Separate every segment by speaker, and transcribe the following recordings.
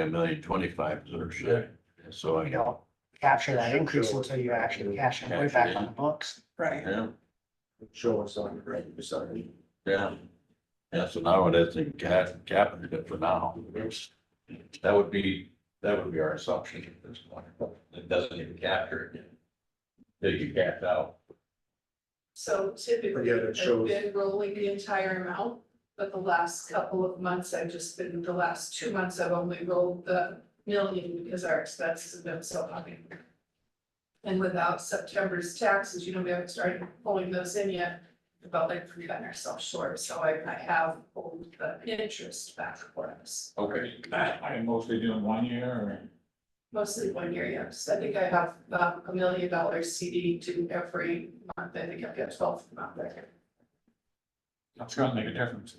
Speaker 1: a million twenty-five is our share, so
Speaker 2: you
Speaker 1: I.
Speaker 2: know, capture that increase until you actually cash it right back on the books.
Speaker 3: Right.
Speaker 1: Yeah,
Speaker 4: Show us on the right side.
Speaker 1: yeah. Yeah, so now it is in cap, capping it for now. That would be, that would be our assumption at this point. It doesn't even capture it. Till you capped out.
Speaker 3: So typically,
Speaker 4: Yeah, that
Speaker 3: I've
Speaker 4: shows-
Speaker 3: been rolling the entire amount, but the last couple of months, I've just been, the last two months, I've only rolled the million because our expenses have been so high. And without September's taxes, you know, we haven't started pulling those in yet, about like we got ourselves short, so I, I have pulled the interest back for us.
Speaker 1: Okay.
Speaker 5: I'm mostly doing one year or?
Speaker 3: Mostly one year, yes, I think I have, um, a million dollar CD to every month, I think I've got twelve a month there.
Speaker 5: That's gonna make a difference.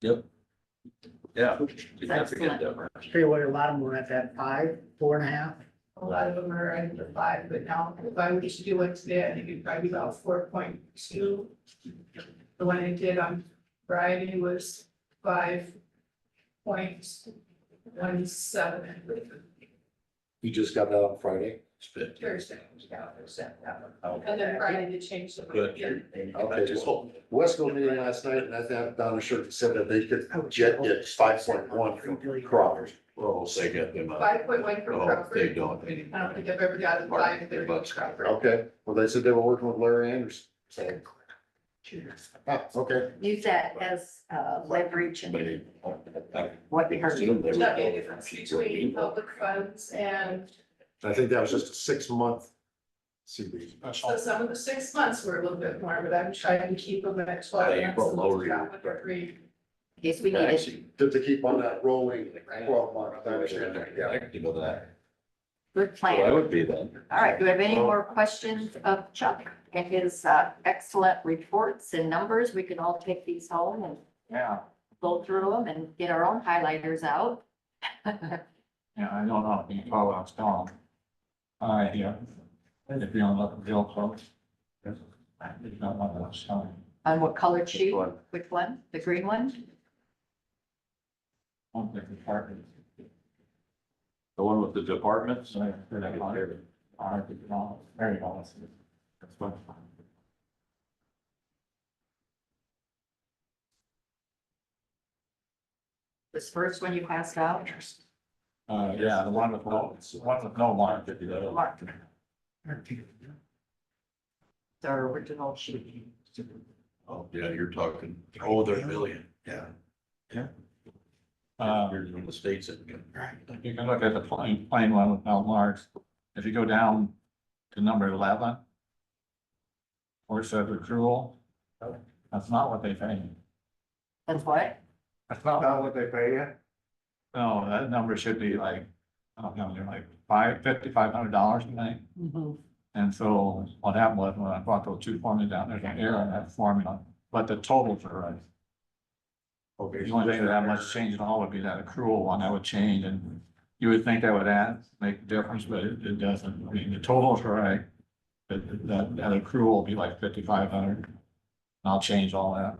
Speaker 1: Yeah. Significant difference.
Speaker 2: Pretty well, a lot of them were at that five, four and a half.
Speaker 3: A lot of them are under five, but now if I were to do one today, I think it'd probably be about four point two. The one I did on Friday was five point one seven
Speaker 4: You just got that on Friday?
Speaker 3: Thursday. yeah, Thursday, that one.
Speaker 4: Okay,
Speaker 3: And then Friday they changed the.
Speaker 1: Good.
Speaker 4: so Wesco meeting last night and I thought Donna Shirk said that they could jet did five point one from Crockers.
Speaker 1: Well, they get them. out.
Speaker 3: Five point one for
Speaker 1: Oh, they
Speaker 3: Crawford.
Speaker 1: don't
Speaker 3: I don't think
Speaker 1: anymore.
Speaker 3: I've ever gotten five
Speaker 1: They're
Speaker 3: there
Speaker 1: about
Speaker 3: for
Speaker 1: to-
Speaker 3: Crawford.
Speaker 4: Okay, well, they said they were working with Larry Anderson. So, ah, okay.
Speaker 6: use that as uh, leverage
Speaker 1: But
Speaker 6: and
Speaker 1: it- I-
Speaker 2: What you heard.
Speaker 3: There's not be a Oh, difference between public funds and,
Speaker 4: I think that was just a six month CB.
Speaker 5: That's
Speaker 3: so
Speaker 5: all.
Speaker 3: some of the six months were a little bit more, but I'm trying to keep them at twelve.
Speaker 1: Yeah, you
Speaker 3: months,
Speaker 1: put lower your-
Speaker 3: not with three.
Speaker 6: in case we need it.
Speaker 4: Did they keep on that rolling twelve month? I understand that, yeah.
Speaker 1: Active of that.
Speaker 6: Good
Speaker 1: Well, I
Speaker 6: plan.
Speaker 1: would be then.
Speaker 6: All right, do we have any more questions of Chuck and his uh, excellent reports and numbers? We can all take these home and
Speaker 5: Yeah,
Speaker 6: go through them and get our own highlighters out.
Speaker 5: yeah, I don't know, you probably was telling. them. I, yeah, if you don't look real close. I did not want to was telling.
Speaker 6: On what colored sheet?
Speaker 1: One.
Speaker 6: Which one? The green one?
Speaker 5: One big department.
Speaker 1: The one with the departments?
Speaker 5: So I put that on there. I did not, very honest. That's what.
Speaker 6: This first one you passed out?
Speaker 5: Uh, yeah, the one with no, it's the one with no mark.
Speaker 6: Mark. The original sheet.
Speaker 1: Oh, yeah, you're talking, oh, they're a million, yeah.
Speaker 5: Uh,
Speaker 1: Here's when the state's in.
Speaker 5: If you can look at the plain, plain one with no marks, if you go down to number eleven. Or says accrual, that's not what they pay. you.
Speaker 6: That's what?
Speaker 5: That's not what they pay you? No, that number should be like, I don't know, they're like five, fifty-five hundred dollars a night. And so what happened was when I brought those two formulas down, there's an error in that formula, but the totals are right.
Speaker 4: Okay.
Speaker 5: The only thing that I much change at all would be that accrual one I would change and you would think that would add, make a difference, but it, it doesn't. I mean, the total's right. But that, that accrual will be like fifty-five hundred. And I'll change all that.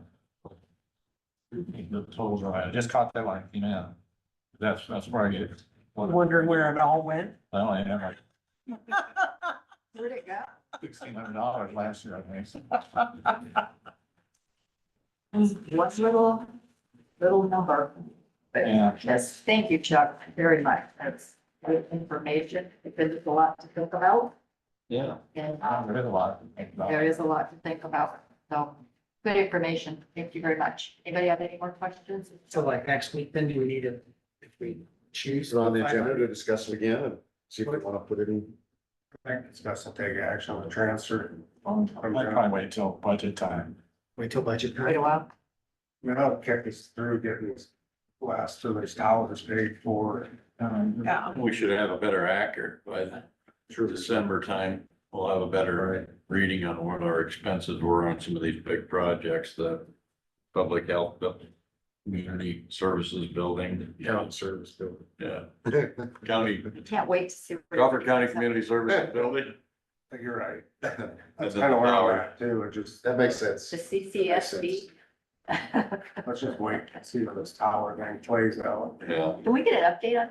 Speaker 5: The total's right. I just caught that like, you know, that's, that's where I get.
Speaker 7: wondering where it all went.
Speaker 5: I only had like
Speaker 6: Where'd it go?
Speaker 5: sixteen hundred dollars last year, I think.
Speaker 6: One little, little number. But
Speaker 5: Yeah.
Speaker 6: Yes, thank you, Chuck, very much. That's great information because it's a lot to think about
Speaker 5: Yeah.
Speaker 6: and um,
Speaker 5: There is a lot to think about.
Speaker 6: there is a lot to think about. So good information. Thank you very much. Anybody have any more questions?
Speaker 2: So like next week, then do we need to, if we choose?
Speaker 4: It's on the agenda to discuss it again and see if we want to put it in.
Speaker 5: I might probably wait till budget time.
Speaker 2: Wait till budget
Speaker 6: Wait a
Speaker 2: time.
Speaker 6: while.
Speaker 5: Um,
Speaker 3: Yeah.
Speaker 1: We should have a better accurate, by through December time, we'll have a better reading on what our expenses were on some of these big projects, the public health, the community services building.
Speaker 4: Town service building.
Speaker 1: Yeah, county,
Speaker 6: We Can't wait to see. where-
Speaker 1: Crawford County Community Services Building.
Speaker 4: You're right. That
Speaker 1: That's kind of where I'm at.
Speaker 4: too, it just. That makes sense.
Speaker 6: The CCSB. Can
Speaker 4: Let's just wait, see how this tower thing plays out.
Speaker 1: Yeah.
Speaker 6: we get an update on